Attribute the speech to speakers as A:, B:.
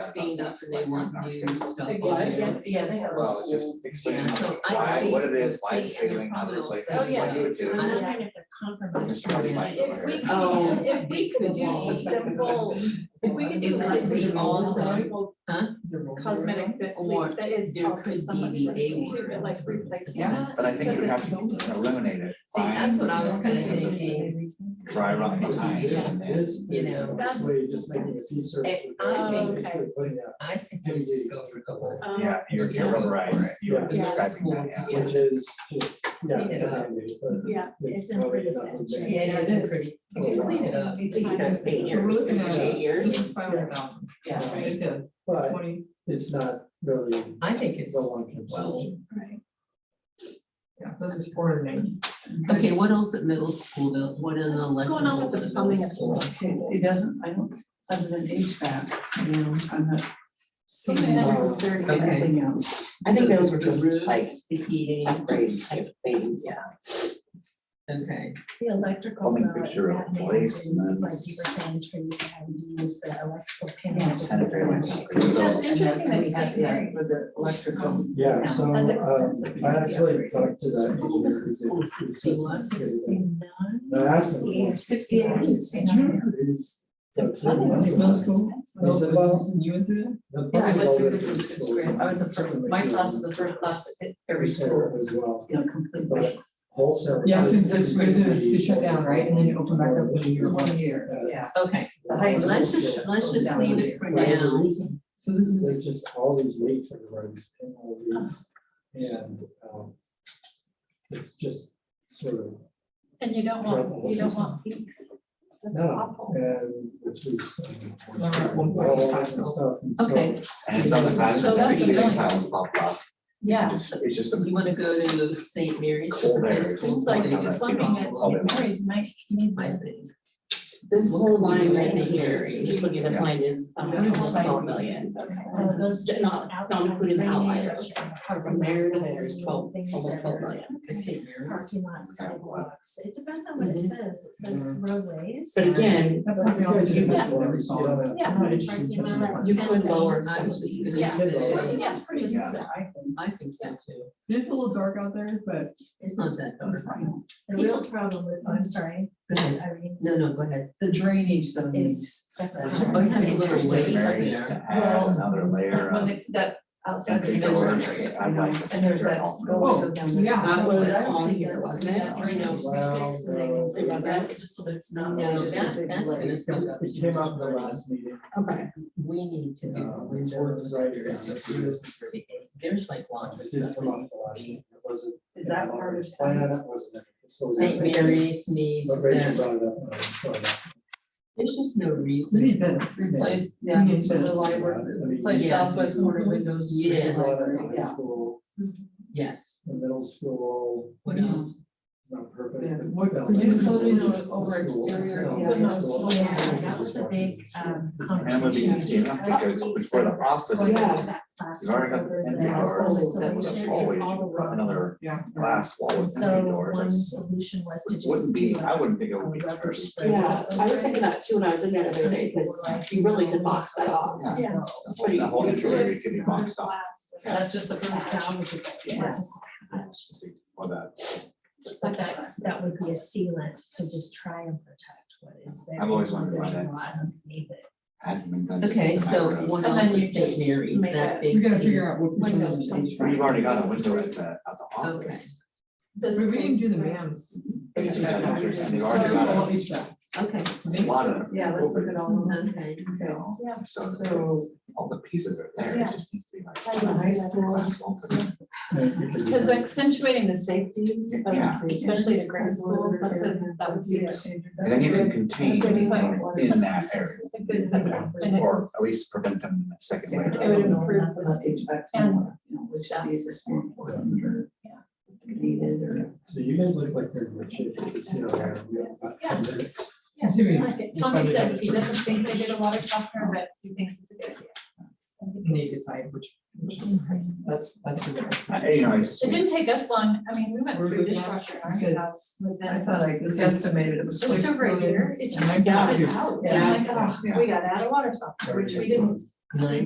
A: steamed up and they want new stuff.
B: Again,
A: on there.
B: yeah.
A: Yeah, they are.
C: Well, it's just explaining
A: Yeah, so I
C: why,
A: see-
C: what it is,
A: I
C: why it's
A: see it in
C: failing,
A: the
C: how to
A: criminal
C: replace
A: side.
C: it, what
B: Oh, yeah.
C: you would do.
B: I'm
A: I'm
B: not
A: not
B: saying
A: if they're compromised.
C: Probably might
B: If we
A: Oh.
B: could, if we could do simple, if we could do
A: It
B: like
A: could be
B: simple,
A: also-
B: simple
A: Huh?
B: cosmetic that
A: Or
B: we, that is
A: there
B: also
A: could
B: somewhat
A: be the A
B: striking too,
A: word.
B: but like replace.
A: Yeah.
C: But I think you would have to eliminate it,
A: See, that's what I was
C: Fine.
A: kinda thinking.
C: dry rot behind
A: Yeah.
C: it and this.
A: You know,
B: that's-
D: Way of just making a C surface.
A: Eh,
D: with
A: I
D: that,
B: think-
D: basically putting that,
A: I think we just go for the whole.
B: Um,
C: Yeah, you're
A: Yeah.
C: you're right, you're
A: Yeah.
C: describing that, yeah.
A: Yeah.
D: Which is just, yeah.
A: Clean it up.
D: exactly, but
B: Yeah,
E: It's in
D: probably
E: pretty
D: not
E: sense,
D: the
E: right?
D: best.
A: Yeah, it is pretty.
D: It's
A: Clean it up.
E: It took us eight
A: So we're
E: years.
A: looking at
D: Eight
E: years.
A: It's five hundred thousand. Yeah,
D: Yeah.
A: it's a
D: But
A: twenty,
D: it's not really
A: I think it's,
D: the long-term
A: well,
D: solution.
F: Yeah, this is four hundred and eighty.
A: okay, what else at middle school, the, what in the
B: What's
A: electrical?
B: going on with the
A: at
B: plumbing
A: middle
B: at
A: school?
G: It doesn't, I don't, other than HVAC, you know, I'm not seeing
B: Something I don't-
G: anything else.
E: I think
A: So
E: those
A: it's
E: were
A: the
E: just
A: roof,
E: like
A: The heating,
E: upgrade type things.
G: Yeah.
A: okay,
G: The electrical.
C: Plumbing
G: uh,
C: fixture
G: that may
C: replacements.
G: increase, Like you were saying, trees and having to use the electrical panel.
C: Sanitary.
B: It's just interesting that
G: We had
B: St. Mary's-
G: that with the electrical.
D: Yeah, so,
B: That's
D: um,
B: expensive.
D: I actually talked to that.
A: What was the school system?
D: I asked him.
G: Sixty-eight or sixty-nine.
D: Is the plumbing
G: Plumbing
D: money
G: is so expensive.
D: Is it well?
A: You went through that?
D: The
G: Yeah, I
D: plumbing's
G: went through
D: already
G: the
D: in
G: first
D: schools,
G: grade. I was the first,
D: certainly
G: my
D: doing
G: class was the first class at every
D: repair
G: school,
D: As well,
G: you know, completely.
D: but wholesale.
F: Yeah, because
D: is-
F: it's, it's, it's shut down, right, and then you open back up when you're one year.
D: Uh,
G: Yeah.
A: Okay,
G: The high
D: Well,
A: let's
G: school.
A: just, let's just
G: Yeah.
A: leave it for
D: Whatever
A: now.
D: reason,
F: So this is,
D: There's just all these leaks in the roads and all these, and, um, it's just sort of,
B: And you don't want, you don't want peaks. That's
D: no,
B: awful.
D: and it's um, these.
F: not like one point of time, though.
A: Okay.
C: And it's on the side,
A: So
C: it's
A: that's
C: actually
A: annoying.
C: tiles pop up.
B: Yeah.
C: It's just- It's just a
A: You wanna go to St. Mary's
C: Cold
A: for
C: air.
A: this school?
C: It's
B: Seems like
C: Well,
B: the
C: that's
B: plumbing at
C: all
B: St.
C: that-
B: Mary's might need
A: I
B: that.
A: think.
E: This whole
A: Look at
E: line
A: the
E: right
A: scenery.
E: here, just look at this
C: Yeah.
E: line is almost twelve million.
G: Uh, those
E: Not- not
G: outside
E: including the
G: drainage,
E: outliers. From there to there is twelve,
G: things
E: almost
G: that
E: twelve
G: are
E: million.
A: It's St. Mary's.
G: Parking lots,
C: Okay, well.
G: sidewalks, it depends on what it
A: Mhm.
G: says, it says roadways.
E: But again,
B: Yeah.
G: Parking lot.
E: you could lower
A: I
E: some of
A: was just
E: these.
A: gonna
B: Yeah.
A: say,
B: Yeah, pretty
G: Yeah.
B: set.
A: I think so too.
F: it's a little dark out there, but
A: It's not that dark.
F: it's fine.
G: The real problem with, I'm sorry,
A: Go ahead.
G: I mean,
A: No, no, go ahead.
F: The drainage though.
G: is. that's
A: Oh,
G: a-
A: it has a little
C: St.
A: ways up
C: Mary's
A: there.
C: to add another layer
G: When
C: of
G: it- that outside.
C: entry
G: drainage
C: doors
G: area,
C: to add like. a
G: And there's that.
C: stairwell.
F: Oh,
G: go down there.
F: yeah.
E: That was
G: I don't
E: on
G: think
E: here,
G: that-
E: wasn't
G: that
E: it?
G: drainage was
D: Well,
G: fixed, so they-
D: no.
E: It wasn't, it's just so that it's not.
A: No,
E: just a
A: that-
E: big
A: that's
E: layer.
A: gonna suck up
D: It came up in the last meeting.
E: Okay,
A: We need to do
D: um, it's worth
A: windows.
D: writing
A: there's
D: down.
A: some- There's like lots of
D: This is
A: stuff.
D: from the last meeting. It wasn't.
G: Is that part of
D: Plan,
G: science?
D: it wasn't. So
A: St.
D: there's-
A: Mary's needs
D: But Rachel
A: that.
D: brought it up. and I was brought it up.
A: There's just no
F: We
A: reason.
F: need this.
G: Place,
F: Yeah.
G: yeah, so the library,
D: I mean,
G: place
A: Yeah.
G: southwest corner windows. to the
A: Yes.
D: brought it
G: library,
D: up in High
G: Yeah.
D: school,
A: Yes.
D: in middle school,
A: What
D: it's
A: else?
D: not perfect.
F: Yeah,
D: but
F: what-
D: down
F: we
D: there,
F: do
D: it's
F: photos
D: just
F: over
D: the school,
F: exterior,
D: so-
F: yeah,
D: it's a
F: no,
D: lot-
G: yeah,
D: it's
G: that was a big, um,
C: And I'm gonna be confused
G: Oh,
C: because before the office, there's you've already got the entry doors,
G: Yeah. Oh,
C: with a hallway, you put another
F: Yeah.
C: glass wall with
G: So
C: entry doors.
G: one
C: That's-
G: solution was to
C: It
G: just.
C: Wouldn't be,
G: do
C: I
G: a-
C: wouldn't think it
G: a
C: would be
G: rubber
C: first.
G: spread.
E: yeah, I was thinking that too when I was in there the other day, because you really could box that off.
C: Yeah.
B: Yeah.
C: The whole entry area could be boxed off.
B: Last.
G: That's just the first salvageable.
E: Yes.
C: Or that.
G: But that, that would be a sealant to just try and protect what is there.
C: I've always wondered why
G: There's a
C: that's-
G: lot underneath it.
C: hasn't been done.
A: Okay, so what
B: And
A: else
B: then
A: is
B: you
A: St.
B: just
A: Mary's,
B: make
A: that
B: a-
A: big?
F: We gotta
A: thing?
F: figure out what percentage is
B: Windows.
F: H V A C.
C: We've already got a window at the, at the office.
B: Does
F: We
B: it
F: we didn't do the
B: replace
F: mams.
C: And
F: H V A C.
C: they've
F: Oh,
C: already
F: it's all
C: got
F: H V A C.
A: Okay,
C: a lot of them.
G: Yeah, let's look at all of them.
A: okay.
C: You know,
B: Yeah.
C: So
G: So
C: all the pieces are there,
B: Yeah.
C: it just needs to be like.
G: like the high school,
C: glass wall put in.
B: Because accentuating the safety, of-
C: Yeah.
B: especially the grade school, that's a, that would be.
C: And then you can contain them in that area,
B: a good- and it-
C: or at least prevent them in the second
G: It
C: layer.
B: It would improve the safety.
G: and, you know, which is is more important or
B: Yeah.
G: it's needed or.
D: So you guys look like you're rich, if you sit around, we have about ten minutes.
F: Continue.
B: Like Tommy said he doesn't think they did a lot of software, but he thinks it's a good idea.
F: And they decide which, which is that's, that's. the better.
C: I- You know, I just-
B: It didn't take us long, I mean, we went
F: We're
B: through
F: good now?
B: dishwasher in
F: Good.
B: our house
F: I
B: within.
F: thought I was estimated it was.
B: Just
F: six
B: over a
F: million,
B: year. It
F: and
B: just
F: I got
B: got
F: you.
B: out.
E: Yeah.
B: Like, oh, We got out of water softener, which we didn't
A: Nine